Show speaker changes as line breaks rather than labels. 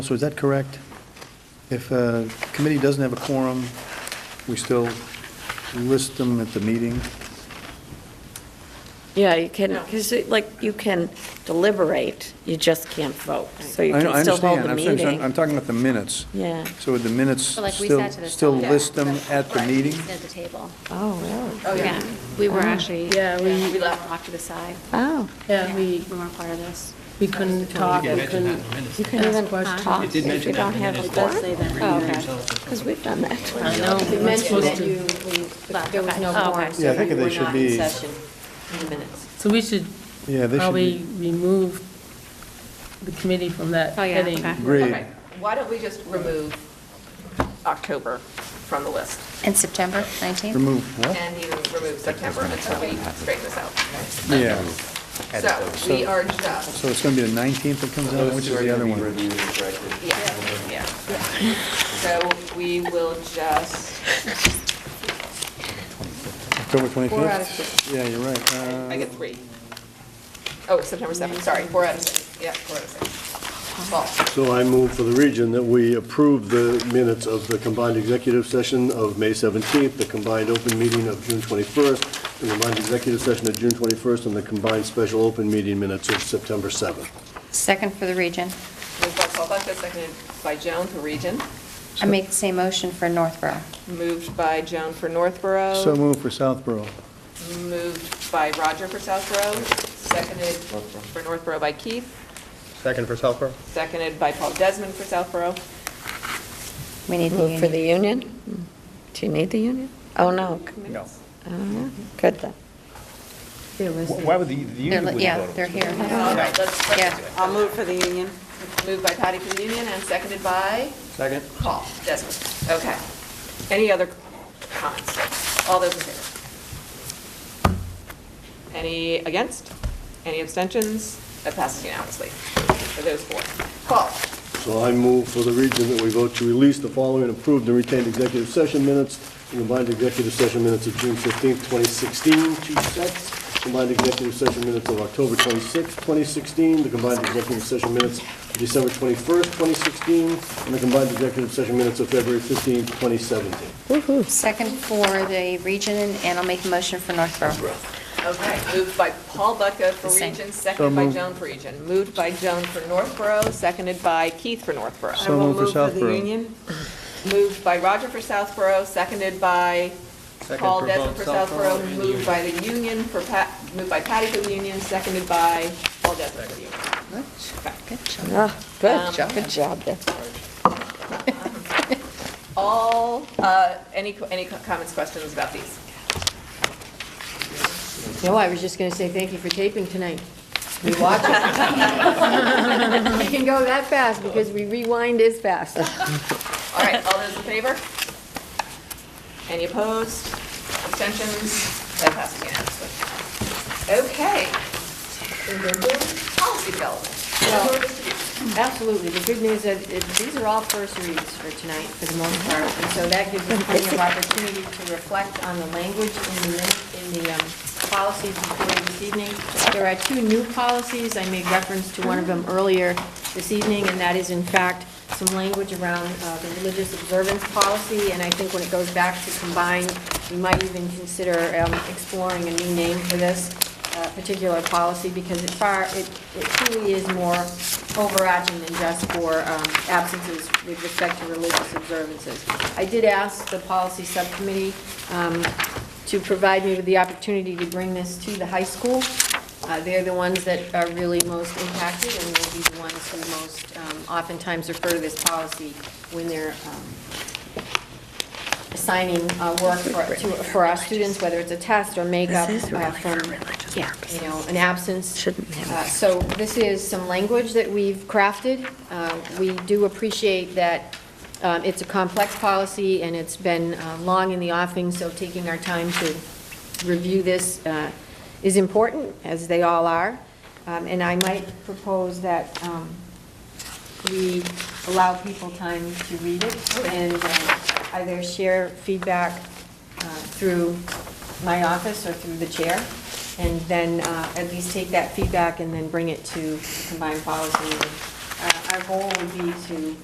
So is that correct? If a committee doesn't have a quorum, we still list them at the meeting?
Yeah, you can, because like, you can deliberate, you just can't vote, so you
I know- I
can still hold
understand.
the
I'm saying-
meeting.
I'm talking about the minutes.
Yeah,
So would the minutes
But like we
still,
sat to the
still
side.
list them at the
Right,
meeting?
At the table.
oh, really?
Oh, yeah.
We
Oh.
were
Ah.
actually.
Yeah, we-
Uh-huh. We left off to the side.
Oh,
Yeah, we,
We weren't part of this.
we couldn't talk, we couldn't.
you can even talk if
did
you don't have a
It does say
quorum?
that.
Oh, okay, because we've done that.
I know,
You
we're not
mentioned
supposed
that
to.
you, we- there was no quorum,
Yeah, I
so
think
we
they
were
should
not
be-
in session in the minutes.
So we should
Yeah, they should
probably
be,
remove the committee from that
Oh, yeah,
heading.
okay.
agreed.
Okay, why don't we just remove October from the list?
In September 19th?
Remove what?
And you remove September until we straighten this out.
Yeah,
So we are just,
so it's going to be the 19th that comes out, which is the other one?
yeah, yeah. So we will just,
October 25th?
Four out of six.
Yeah, you're right. Uh,
I get three. Oh, September 7th, sorry, four out of six, yeah, four out of six. Well,
So I move for the region that we approve the minutes of the combined executive session of May 17th, the combined open meeting of June 21st, the combined executive session of June 21st, and the combined special open meeting minutes of September 7th.
Second for the region.
Moved by Paul Buckett, seconded by Joan for region,
I make the same motion for Northborough.
moved by Joan for Northborough.
Uh, So move for Southborough.
Moved by Roger for Southborough, seconded for Northborough by Keith,
Second for Southborough?
seconded by Paul Desmond for Southborough.
We need the
Move for the
union.
union? Mm. Do you need the union? Oh, no,
No.
Uh, good then.
Why would the, the
They're
union
li-
wouldn't
Yeah,
vote?
they're here.
All right,
Yeah.
let's, let's do it.
I'll move for the union.
Moved by Patty for the Union and seconded by
Second?
Paul Desmond. Okay. Any other comments? All those in favor? Any against? Any abstentions? That passes unanimously for those four. Paul?
So I move for the region that we vote to release the following approved and retained executive session minutes, the combined executive session minutes of June 15th, 2016, two sets, combined executive session minutes of October 26th, 2016, the combined executive session minutes of December 21st, 2016, and the combined executive session minutes of February 15th, 2017.
Second for the region, and I'll make a motion for Northborough.
Okay, moved by Paul Bucko for
The same.
Region,
So
seconded by
moved.
Joan for Region. Moved by Joan for Northborough, seconded by Keith for Northborough.
So moved for
I will move for the
Southborough.
union.
Moved by Roger for Southborough, seconded by
Second
Paul
for
Desmond
both
for
Southborough
Southborough.
and
Moved
Union.
by the Union for Pat, moved by Patty for the Union, seconded by Paul Desmond for the Union.
Good job.
Ah, Good
Um,
job, good job there.
All, uh, any, any comments, questions about these? No,
I was just going to say thank you for taping tonight.
We watch it.
We can go that fast because we rewind as fast.
All right, all those in favor? Any opposed? Abstentions? That passes unanimously. Okay. Policy development.
Absolutely. The good news is, it- these are all first reads for tonight, for the most part. And so that gives us plenty of opportunity to reflect on the language in the, min- in the um, policies before you this evening. There are two new policies. I made reference to one of them earlier this evening, and that is in fact some language around uh, the religious observance policy. And I think when it goes back to combined, we might even consider um, exploring a new name for this uh, particular policy because it far, it it truly is more overarching than just for um, absences with respect to religious observances. I did ask the policy subcommittee um, to provide me with the opportunity to bring this to the high school. Uh, They're the ones that are really most impacted and will be the ones who most um, oftentimes refer to this policy when they're um, assigning uh, work for, to- for our students, whether it's a test or makeup
This is
uh,
really for
from,
religious
you know, an absence.
Shouldn't have.
Uh, So this is some language that we've crafted. Uh, We do appreciate that um, it's a complex policy, and it's been uh, long in the offing, so taking our time to review this uh, is important, as they all are. Um, And I might propose that um, we allow people time to read it and uh, either share feedback uh, through my office or through the chair, and then uh, at least take that feedback and then bring it to the combined policy and uh, our goal would be to